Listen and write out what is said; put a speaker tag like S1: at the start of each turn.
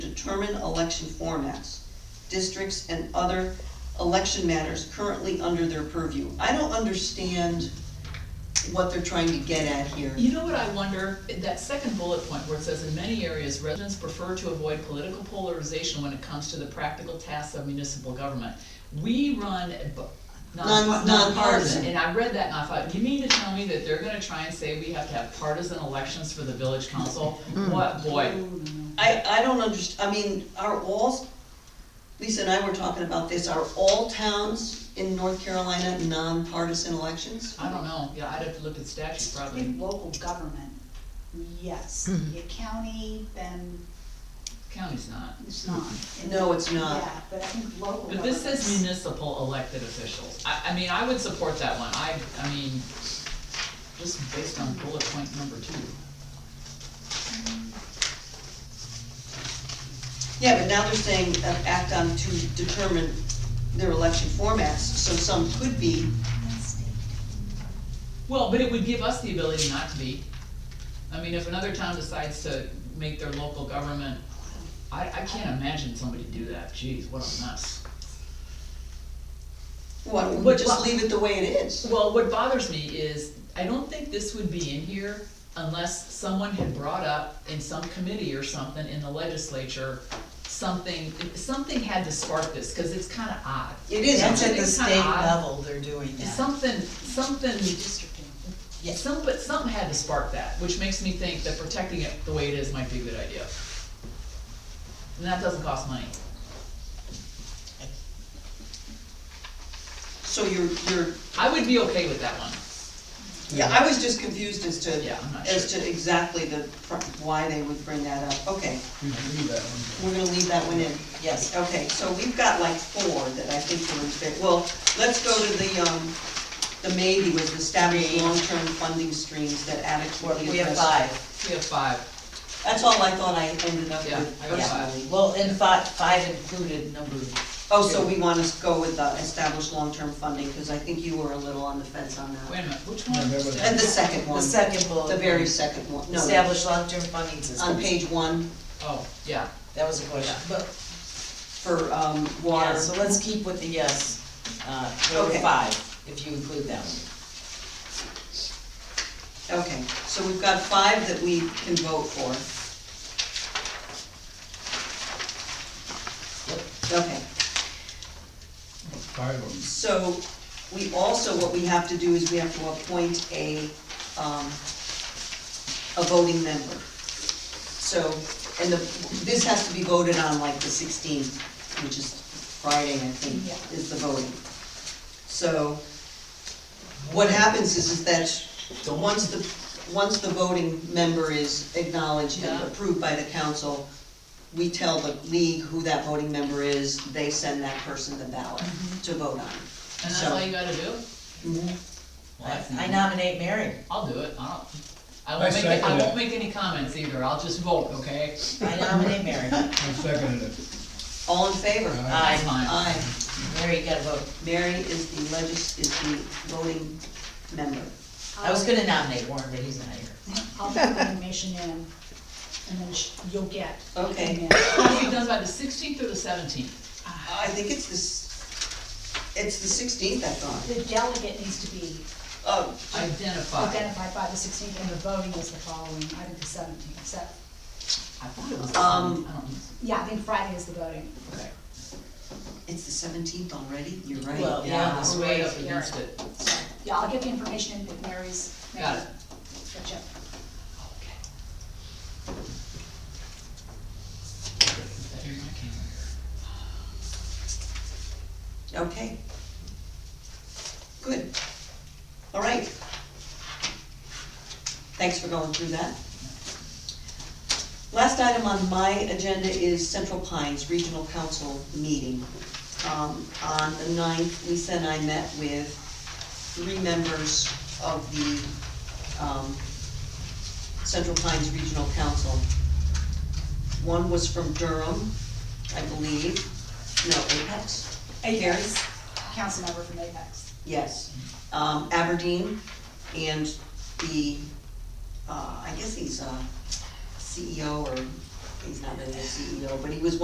S1: determine election formats, districts, and other election matters currently under their purview. I don't understand what they're trying to get at here.
S2: You know what I wonder, that second bullet point where it says, in many areas, residents prefer to avoid political polarization when it comes to the practical tasks of municipal government. We run a bu-
S1: Non-
S2: non-
S1: nonpartisan.
S2: nonpartisan, and I read that and I thought, you mean to tell me that they're gonna try and say we have to have partisan elections for the village council?
S1: Mm.
S2: What, boy,
S1: I, I don't underst, I mean, are all, Lisa and I were talking about this, are all towns in North Carolina nonpartisan elections?
S2: I don't know, yeah, I'd have to look at statute probably.
S3: In local government, yes, the county, then
S2: County's not.
S3: it's not.
S1: No, it's not.
S3: Yeah, but I think local
S2: But this
S3: government-
S2: says municipal elected officials. I, I mean, I would support that one. I, I mean, just based on bullet point number two.
S1: Yeah, but now they're saying uh, act on to determine their election formats, so some could be,
S2: Well, but it would give us the ability not to be. I mean, if another town decides to make their local government, I, I can't imagine somebody do that, Jeez, what a mess.
S1: why don't we
S2: But-
S1: just leave it the way it is?
S2: Well, what bothers me is, I don't think this would be in here unless someone had brought up in some committee or something in the legislature, something, something had to spark this, cause it's kinda odd.
S1: It is,
S4: That's at the
S2: It's
S4: state
S2: kinda odd.
S4: level they're doing that.
S2: Something, something Yeah, some, but something had to spark that, which makes me think that protecting it the way it is might be a good idea. And that doesn't cost money.
S1: so you're, you're,
S2: I would be okay with that one.
S1: yeah, I was just confused as to,
S2: Yeah, I'm not
S1: as
S2: sure.
S1: to exactly the, pr- why they would bring that up, okay.
S5: We can leave that one.
S1: We're gonna leave that one in.
S4: Yes.
S1: Okay, so we've got like four that I think were in favor. Well, let's go to the, um, the maybe was establish long-term funding streams that adequately address.
S4: We have five.
S2: We have five.
S1: That's all I thought I ended up
S2: Yeah,
S1: with
S2: I got five.
S1: personally.
S4: Well, and five, five included number,
S1: Oh, so we wanna go with the establish long-term funding, cause I think you were a little on the fence on
S2: Wait
S1: that.
S2: a minute, which
S5: Yeah,
S2: one?
S5: that was-
S1: And the second
S4: the
S1: one,
S4: second bullet.
S1: the very
S4: point,
S1: second one, no, no,
S4: Establish long-term funding system.
S1: on page one
S2: Oh, yeah,
S4: That was a question, but,
S1: for, um,
S4: yeah,
S1: water.
S4: so let's keep with the yes, uh, number
S1: Okay.
S4: five, if you include that one.
S1: Okay, so we've got five that we can vote for. Okay,
S5: Five of them.
S1: so we also, what we have to do is we have to appoint a, um, a voting member. So, and the, this has to be voted on like the sixteenth, which is Friday, I think,
S3: Yeah.
S1: is the voting. So, what happens is, is that
S2: Don't-
S1: once the, once the voting member is acknowledged and
S2: Yeah.
S1: approved by the council, we tell the league who that voting member is, they send that person the ballot
S2: Mm-hmm.
S1: to vote on.
S2: and that's
S1: So-
S2: all you gotta do? Well, that's
S4: I
S2: easy.
S4: nominate Mary.
S2: I'll do it, I don't, I
S5: I
S2: won't make, I
S5: second
S2: won't
S5: that.
S2: make any comments either, I'll just vote, okay?
S4: I nominate Mary.
S5: I seconded it.
S1: All in favor?
S5: Aye.
S4: Aye.
S2: Fine.
S1: Aye.
S4: Mary, you gotta vote.
S1: Mary is the legis, is the voting member.
S4: I was gonna nominate Warren, but he's not here.
S3: I'll put the information in, and then sh- you'll get. the
S1: Okay.
S3: email. Ah.
S2: It'll be done by the sixteenth or the seventeenth?
S1: I think it's this, it's the sixteenth, I thought.
S3: The delegate needs to be
S1: Oh,
S2: Identify. I
S3: identified by the sixteenth, and the voting is the following, I think the seventeenth, so,
S2: thought it was the
S1: Um,
S2: 17th. I don't know.
S3: yeah, I think Friday is the voting.
S2: Okay.
S1: it's the seventeenth already? You're right.
S4: Well, yeah, this
S2: We're right
S4: way.
S2: up against it.
S3: So, yeah, I'll get the information in with Mary's.
S2: Got it.
S3: Gotcha.
S2: Okay. Put that in my calendar.
S1: Okay. Good. All right. Thanks for going through that. Last item on my agenda is Central Pines Regional Council meeting. Um, on the ninth, Lisa and I met with three members of the, um, Central Pines Regional Council. One was from Durham, I believe, no, Apex? Apex.
S3: Council member from Apex.
S1: Yes, um, Aberdeen and the, uh, I guess he's, uh, CEO or he's not been the CEO, but he was